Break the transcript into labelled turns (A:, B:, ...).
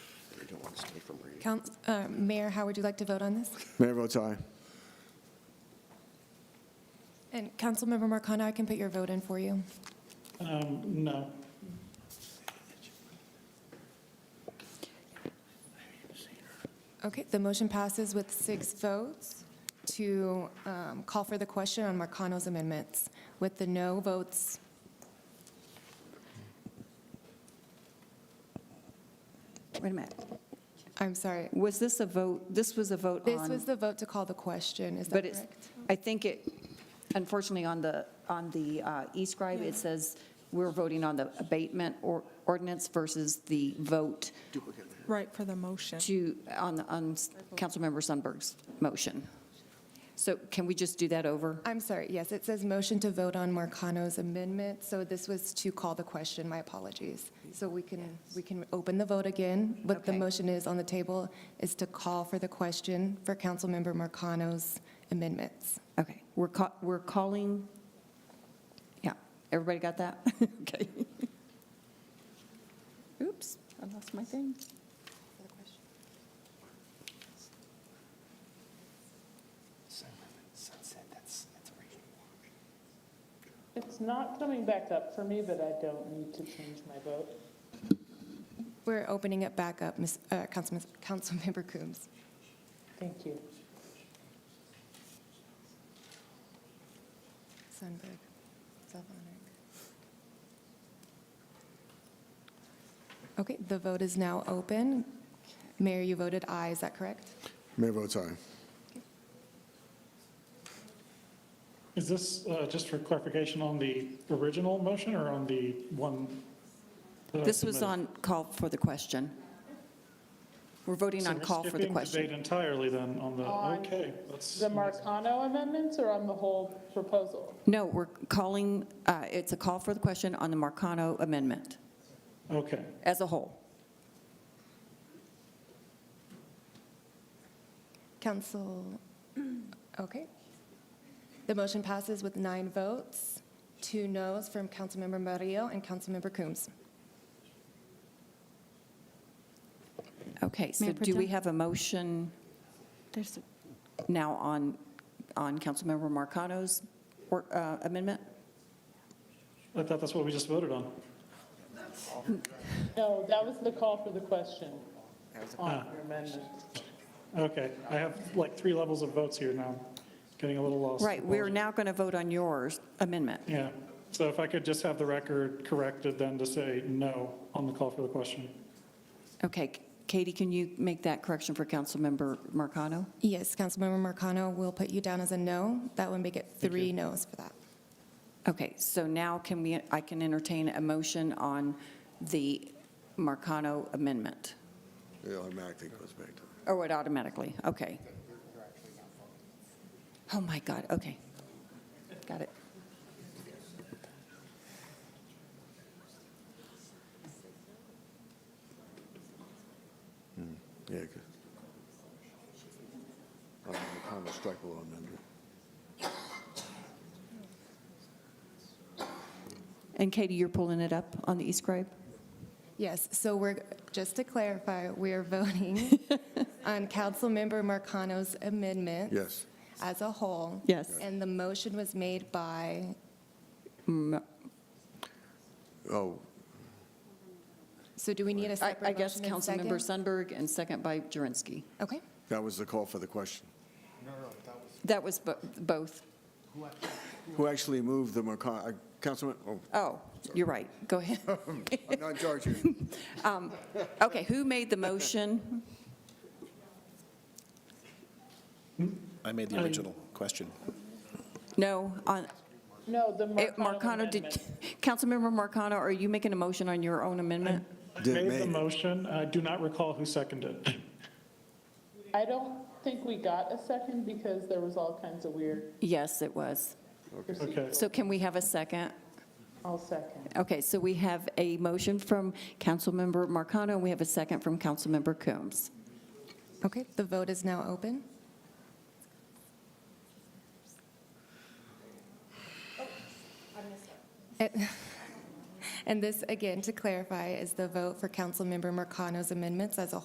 A: stay from reading.
B: Couns- uh, Mayor, how would you like to vote on this?
C: Mayor votes aye.
B: And Councilmember Marcano, I can put your vote in for you.
D: Um, No.
B: Okay, the motion passes with six votes to um, call for the question on Marcano's amendments with the no votes.
E: Wait a minute.
B: I'm sorry.
E: Was this a vote, this was a vote
B: This was
E: on,
B: the vote to call the question, is that
E: but it's,
B: correct?
E: I think it, unfortunately, on the, on the uh, e-scribe, it says we're voting on the abatement or ordinance versus the vote
F: Right, for the motion.
E: to, on, on Councilmember Sundberg's motion. So can we just do that over?
B: I'm sorry, yes, it says motion to vote on Marcano's amendment, so this was to call the question, my apologies. So we can, we can open the vote again, but the
E: Okay.
B: motion is on the table, is to call for the question for Councilmember Marcano's amendments.
E: Okay, we're ca, we're calling, yeah, everybody got that? Okay. Oops, I lost my thing.
A: Sunset, that's, that's a reading.
D: It's not coming back up for me, but I don't need to change my vote.
B: We're opening it back up, Ms., uh, Councilman, Councilmember Coombs.
D: Thank you.
B: Sundberg, Savanek. Okay, the vote is now open. Mayor, you voted aye, is that correct?
C: Mayor votes aye.
D: Is this, uh, just for clarification, on the original motion or on the one? that I
E: This was
D: submitted?
E: on call for the question. We're voting
D: So
E: on
D: we're
E: call for the
D: skipping
E: question.
D: debate entirely then on the,
G: On
D: okay, that's.
G: The Marcano amendments or on the whole proposal?
E: No, we're calling, uh, it's a call for the question on the Marcano amendment
D: Okay,
E: as a whole.
B: Council, okay. The motion passes with nine votes, two noes from Councilmember Murillo and Councilmember Coombs.
E: Okay, so
H: Mayor Pro
E: do we
H: Tem?
E: have a motion
H: There's,
E: now on, on Councilmember Marcano's or- uh, amendment?
D: I thought that's what we just voted on.
G: No, that was the call for the question on
D: Ah.
G: your amendment.
D: Okay, I have like three levels of votes here now, getting a little lost.
E: Right, we're now going to vote on yours amendment.
D: Yeah, so if I could just have the record corrected then to say no on the call for the question.
E: Okay, Katie, can you make that correction for Councilmember Marcano?
B: Yes, Councilmember Marcano will put you down as a no. That would make it three noes for that.
E: Okay, so now can we, I can entertain a motion on the Marcano amendment,
C: It automatically goes back to.
E: or what automatically, okay. Oh my God, okay. Got it.
C: Yeah. it goes. Oh, the comment strike below amendment.
E: And Katie, you're pulling it up on the e-scribe?
B: Yes, so we're, just to clarify, we are voting on Councilmember Marcano's amendment.
C: Yes.
B: As a whole.
E: Yes.
B: And the motion was made by,
E: Mm,
C: Oh,
B: so do we need a
E: I
B: separate
E: I guess
B: motion and second?
E: Councilmember Sundberg and second by Jurenski.
B: Okay,
C: that was the call for the question.
E: That was bo- both.
C: Who actually moved the Marcano, uh, Councilman, oh,
E: Oh, you're right, go ahead.
C: I'm not in charge here.
E: Okay, who made the motion?
A: I made the original question.
E: No, on,
G: No, the
E: Eh,
G: Marcano
E: Marcano, did,
G: amendment.
E: Councilmember Marcano, are you making a motion on your own amendment?
D: I
C: Did
D: made
C: make
D: the
C: it.
D: motion, I do not recall who seconded it.
G: I don't think we got a second because there was all kinds of weird
E: Yes, it was.
D: Okay,
E: So can we have a second?
G: all second.
E: Okay, so we have a motion from Councilmember Marcano, and we have a second from Councilmember Coombs.
B: okay, the vote is now open. Oh, And- And this, again, to clarify, is the vote for Councilmember Marcano's amendments as a